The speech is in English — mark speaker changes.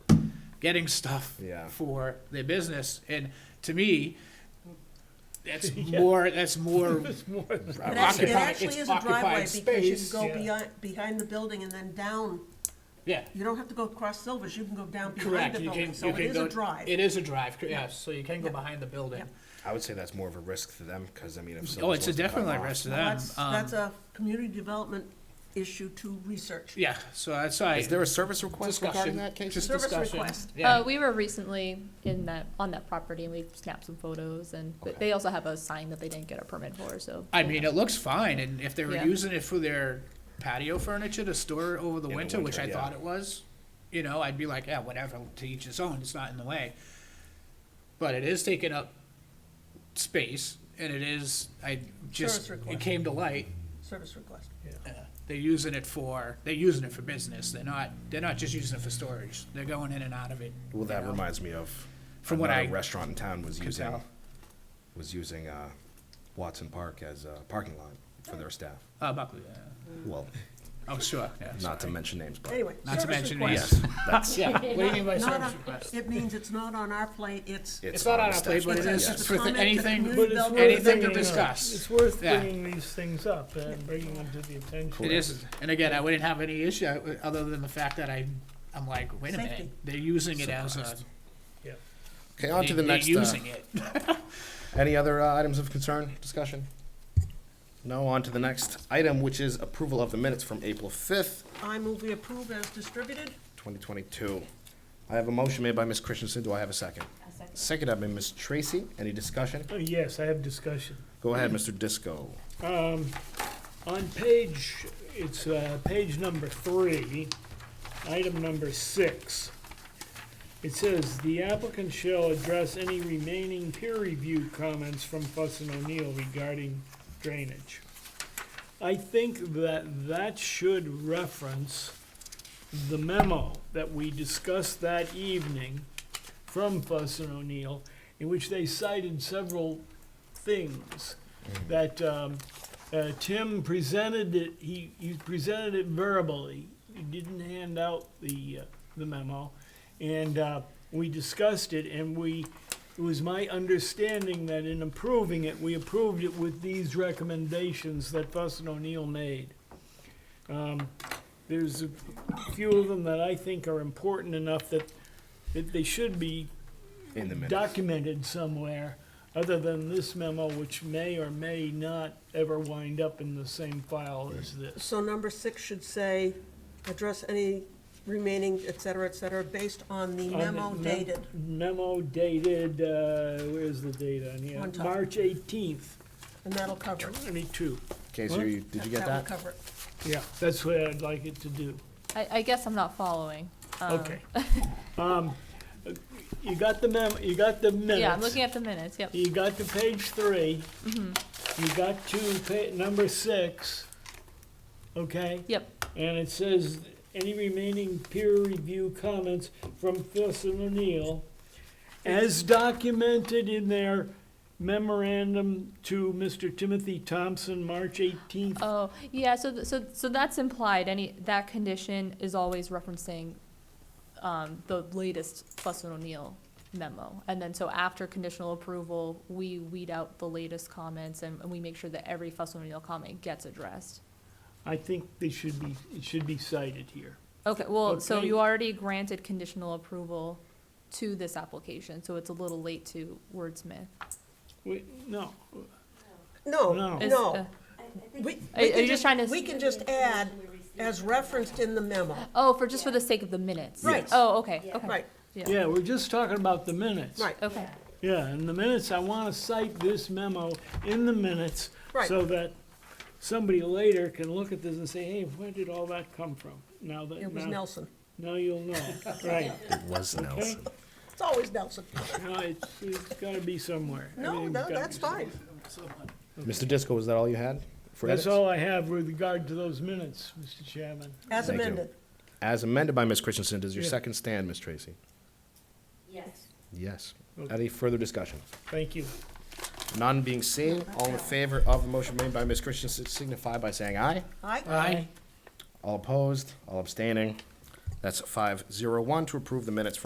Speaker 1: getting stuff
Speaker 2: Yeah.
Speaker 1: for their business. And to me, that's more, that's more
Speaker 3: It's more than-
Speaker 4: It actually, it
Speaker 1: Occupied-
Speaker 4: actually
Speaker 1: it's
Speaker 4: is a driveway
Speaker 1: occupied
Speaker 4: because you can
Speaker 1: space.
Speaker 4: go
Speaker 3: Yeah.
Speaker 4: beyond, behind the building and then down.
Speaker 1: yeah.
Speaker 4: You don't have to go across Silvers, you can go down behind
Speaker 1: Correct.
Speaker 4: the
Speaker 1: You
Speaker 4: building,
Speaker 1: can,
Speaker 4: so
Speaker 1: you
Speaker 4: it
Speaker 1: can
Speaker 4: is a
Speaker 1: go.
Speaker 4: drive.
Speaker 1: It is a drive, cor- yes, so you can go
Speaker 4: Yeah.
Speaker 1: behind the building.
Speaker 4: Yeah.
Speaker 2: I would say that's more of a risk to them, because I mean, if
Speaker 1: Oh,
Speaker 2: someone
Speaker 1: it's a
Speaker 2: wants to cut
Speaker 1: definitely
Speaker 2: them off-
Speaker 1: risk to them.
Speaker 4: That's,
Speaker 1: Um,
Speaker 4: that's a community development issue to research.
Speaker 1: Yeah, so that's why.
Speaker 2: Is there a service request
Speaker 1: Discussion.
Speaker 2: regarding that, Casey?
Speaker 1: Just
Speaker 4: Service
Speaker 1: discussion.
Speaker 4: request.
Speaker 1: Yeah.
Speaker 5: Uh, we were recently in that, on that property and we snapped some photos and, but they also have a sign that they didn't get a permit for, so.
Speaker 1: I mean, it looks fine, and if they were
Speaker 5: Yeah.
Speaker 1: using it for their patio furniture to store over the
Speaker 2: the
Speaker 1: winter, which
Speaker 2: winter,
Speaker 1: I
Speaker 2: yeah.
Speaker 1: thought it was, you know, I'd be like, yeah, whatever, to each his own, it's not in the way. But it is taking up space, and it is, I just,
Speaker 4: Service
Speaker 1: it
Speaker 4: request.
Speaker 1: came to light,
Speaker 4: Service request.
Speaker 1: they're using it for, they're using it for business, they're not, they're not just using it for storage, they're going in and out of it.
Speaker 2: Well,
Speaker 1: you
Speaker 2: that
Speaker 1: know.
Speaker 2: reminds me of
Speaker 1: From what
Speaker 2: another
Speaker 1: I
Speaker 2: restaurant in town was
Speaker 1: could
Speaker 2: using
Speaker 1: tell.
Speaker 2: was using uh, Watson Park as a parking lot for their staff.
Speaker 1: Uh, Buckley, yeah.
Speaker 2: Well,
Speaker 1: oh, sure, yeah.
Speaker 2: not to mention names, but
Speaker 4: Anyway,
Speaker 1: Not to
Speaker 4: service
Speaker 1: mention,
Speaker 4: request.
Speaker 1: yes. Yeah, what do you mean by
Speaker 4: Not
Speaker 1: service
Speaker 4: on-
Speaker 1: request?
Speaker 4: It means it's not on our plate, it's,
Speaker 1: It's not on our
Speaker 2: the
Speaker 1: plate,
Speaker 2: statute.
Speaker 1: but it
Speaker 4: It's
Speaker 1: is,
Speaker 4: a-
Speaker 1: it's
Speaker 4: it's a
Speaker 1: with
Speaker 4: comment to
Speaker 1: anything,
Speaker 4: community
Speaker 3: But it's worth
Speaker 1: anything to
Speaker 3: bringing up.
Speaker 1: discuss.
Speaker 3: It's worth
Speaker 1: Yeah.
Speaker 3: bringing these things up and bringing them to the attention.
Speaker 1: It is, and again, I wouldn't have any issue, uh, other than the fact that I, I'm like, wait a minute,
Speaker 4: Safety.
Speaker 1: they're using it as a,
Speaker 2: Surprised.
Speaker 3: Yeah.
Speaker 2: Okay, on to the
Speaker 1: they're
Speaker 2: next. Uh,
Speaker 1: using it.
Speaker 2: any other uh, items of concern, discussion? No. On to the next item, which is approval of the minutes from April fifth,
Speaker 4: I move we approve as distributed.
Speaker 2: twenty twenty-two. I have a motion made by Ms. Christensen. Do I have a second? Seconded by Ms. Tracy. Any discussion?
Speaker 3: Uh, Yes, I have discussion.
Speaker 2: Go ahead, Mr. Disco.
Speaker 3: Um, on page, it's, uh, page number three, item number six. It says, "The applicant shall address any remaining peer review comments from Fuss and O'Neill regarding drainage." I think that that should reference the memo that we discussed that evening from Fuss and O'Neill, in which they cited several things that um, uh, Tim presented it, he, he presented it verbally. He didn't hand out the, uh, the memo. And uh, we discussed it, and we, it was my understanding that in approving it, we approved it with these recommendations that Fuss and O'Neill made. Um, There's a few of them that I think are important enough that, that they should be
Speaker 2: In the minutes.
Speaker 3: documented somewhere, other than this memo, which may or may not ever wind up in the same
Speaker 2: Hmm.
Speaker 3: file as this.
Speaker 4: So number six should say, address any remaining, et cetera, et cetera, based on the memo
Speaker 3: On the Um, mem-
Speaker 4: dated.
Speaker 3: Memo dated, uh, where's the date on here?
Speaker 4: On top.
Speaker 3: March eighteenth,
Speaker 4: And that'll cover it.
Speaker 3: twenty-two.
Speaker 2: Casey, are you, did you get
Speaker 4: That'll
Speaker 2: that?
Speaker 4: cover it.
Speaker 3: Yeah, that's what I'd like it to do.
Speaker 5: I, I guess I'm not following. Um,
Speaker 3: Okay. Um, you got the memo, you got the minutes.
Speaker 5: Yeah, I'm looking at the minutes, yep.
Speaker 3: You got to page three.
Speaker 5: Mm-hmm.
Speaker 3: You got to pa- number six. Okay?
Speaker 5: Yep,
Speaker 3: And it says, any remaining peer review comments from Fuss and O'Neill as documented in their memorandum to Mr. Timothy Thompson, March eighteenth.
Speaker 5: oh, yeah, so, th- so, so that's implied, any, that condition is always referencing, um, the latest Fuss and O'Neill memo. And then, so after conditional approval, we weed out the latest comments and, and we make sure that every Fuss and O'Neill comment gets addressed.
Speaker 3: I think they should be, it should be cited here.
Speaker 5: Okay, well, so
Speaker 3: Okay.
Speaker 5: you already granted conditional approval to this application, so it's a little late to wordsmith.
Speaker 3: Wait, no,
Speaker 4: No,
Speaker 3: No.
Speaker 5: Is- uh,
Speaker 4: no. We-
Speaker 5: Are-
Speaker 4: we
Speaker 5: are
Speaker 4: can
Speaker 5: you just trying to s-
Speaker 4: We can just add, as referenced in the memo.
Speaker 5: Oh, for, just for the sake of the minutes?
Speaker 4: Right. Yes.
Speaker 5: Oh, okay, okay.
Speaker 4: Right,
Speaker 3: yeah, we're just talking about the minutes.
Speaker 4: right.
Speaker 5: Okay,
Speaker 3: Yeah, in the minutes, I want to cite this memo in the minutes
Speaker 4: Right.
Speaker 3: so that somebody later can look at this and say, hey, where did all that come from? Now that,
Speaker 4: It was
Speaker 3: now,
Speaker 4: Nelson.
Speaker 3: now you'll know, right.
Speaker 2: It was Nelson.
Speaker 4: It's always Nelson.
Speaker 3: No, it's, it's gotta be somewhere.
Speaker 4: No,
Speaker 3: Everything's
Speaker 4: no,
Speaker 3: gotta
Speaker 4: that's
Speaker 3: be-
Speaker 4: fine.
Speaker 2: Mr. Disco, was that all you had? for
Speaker 3: That's
Speaker 2: edits?
Speaker 3: all I have with regard to those minutes, Mr. Chairman.
Speaker 4: As
Speaker 2: Thank you.
Speaker 4: amended.
Speaker 2: As amended by Ms. Christensen, does your
Speaker 3: Yeah.
Speaker 2: second stand, Ms. Tracy?
Speaker 6: Yes.
Speaker 2: Yes.
Speaker 3: Okay.
Speaker 2: Any further discussion?
Speaker 3: Thank you.
Speaker 2: None being seen, all in favor of the motion made by Ms. Christensen signify by saying aye.
Speaker 4: Aye.
Speaker 2: All opposed, all abstaining. That's five zero one to approve the minutes